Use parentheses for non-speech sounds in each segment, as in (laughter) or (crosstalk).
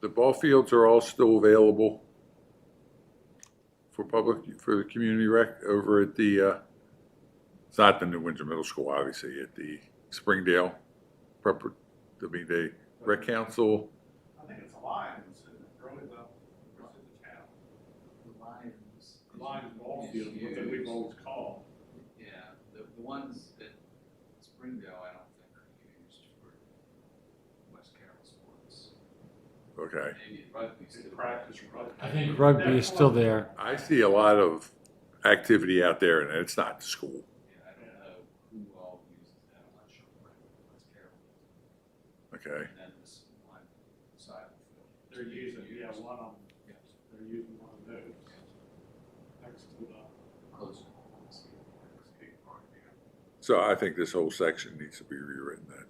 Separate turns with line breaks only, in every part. the ball fields are all still available for public, for the community rec over at the, uh, it's not the New Windsor Middle School, obviously, at the Springdale Prep, I mean, the rec council.
I think it's Lions and Early Level versus the town.
The Lions.
Lions ball field, what that we've always called.
Yeah, the, the ones at Springdale, I don't think are used for West Carroll sports.
Okay.
Maybe rugby's
It's
still.
practice rugby.
I think rugby is still there.
I see a lot of activity out there and it's not the school.
Yeah, I don't know who all uses that, I'm not sure, but West Carroll.
Okay.
And then this one side of the field.
They're using, yeah,
Used.
one of them,
Yeah,
they're using one of those next to the.
Close. Skate park, yeah.
So I think this whole section needs to be rewritten then.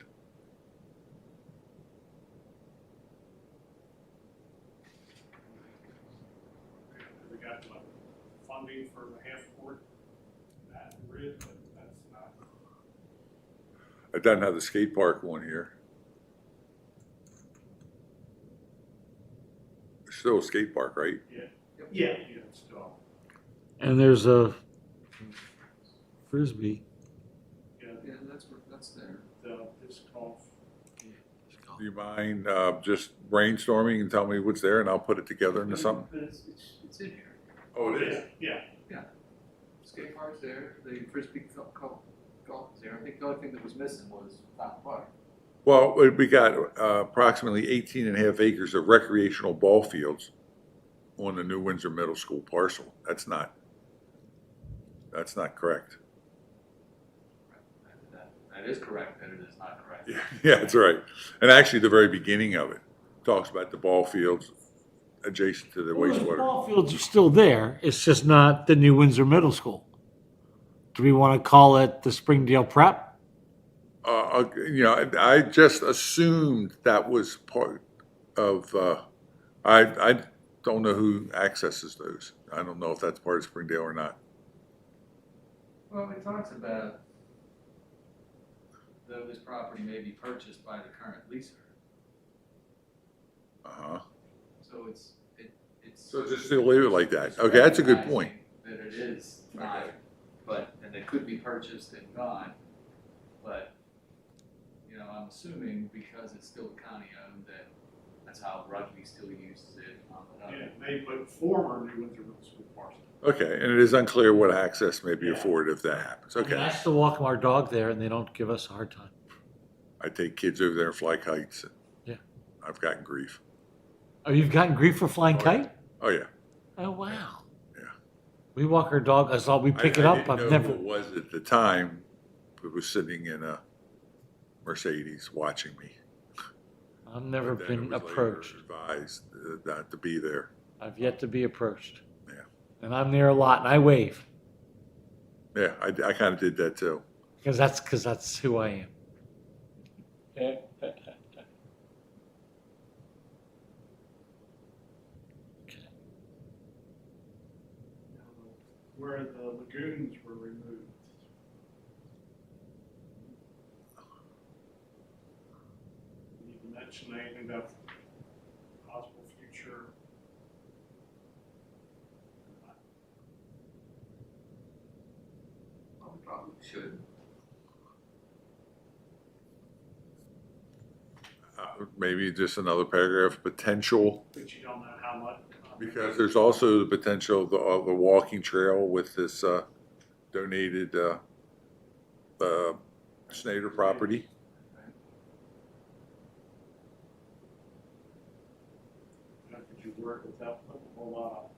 uh, They got like funding for the half court, that bridge, but that's not.
It doesn't have the skate park one here. There's still a skate park, right?
Yeah, yeah, it's still,
And there's a frisbee.
yeah,
Yeah, that's, where- that's there.
the disc golf.
Do you mind uh, just brainstorming and tell me what's there and I'll put it together into something?
But It's, it's, it's in here.
Oh,
Yeah,
Skate park's there, the frisbee golf, golf is there, I think the only thing that was missing was Fountain Park.
Well, we- we got uh, approximately 18 and a half acres of recreational ball fields on the New Windsor Middle School parcel. That's not, that's not correct. (laughs)
That- that- uh, That is correct, and it is not correct.
Yeah, yeah, that's right. And actually, the very beginning of it talks about the ball fields adjacent to the
Well, the
wastewater.
Ball fields are still there. It's just not the New Windsor Middle School. Do we want to call it the Springdale Prep?
Uh, uh, you know, I- I just assumed that was part of, uh, I, I don't know who accesses those. I don't know if that's part of Springdale or not.
Well, it talks about though this property may be purchased by the current leaser,
Uh-huh.
so it's, it, it's.
So just to leave it like that. Okay, that's a good point.
recognizing That it is not,
Okay.
but, and it could be purchased and gone, but, you know, I'm assuming because it's still county owned that that's how rugby still uses it on
yeah,
the other.
they put former New Windsor Middle School parcel.
Okay, and it is unclear what access may be afforded if that happens.
And I
Okay.
still walk our dog there and they don't give us a hard time.
I take kids over there and fly kites.
Yeah.
I've gotten grief.
Oh, you've gotten grief for flying
Oh, yeah.
kite?
Oh, yeah.
Oh, wow.
Yeah.
We walk our dog, as all we
I-
pick
I
it up,
didn't know
I've
who
never,
it was at the time, who was sitting in a Mercedes watching me.
I've never
Then it
been
was later
approached.
Advised uh, not to be there.
I've yet to be approached.
Yeah.
And I'm there a lot and I wave
Yeah, I, I kind of did that too.
because that's, because that's who I am.
Where the lagoons were removed. You didn't mention anything about possible future.
Well, we Probably should.
Uh, Maybe just another paragraph, potential,
But you don't know how much.
because there's also the potential of the, of the walking trail with this, uh, donated, uh, uh, Snyder property.
How could you work without putting a whole lot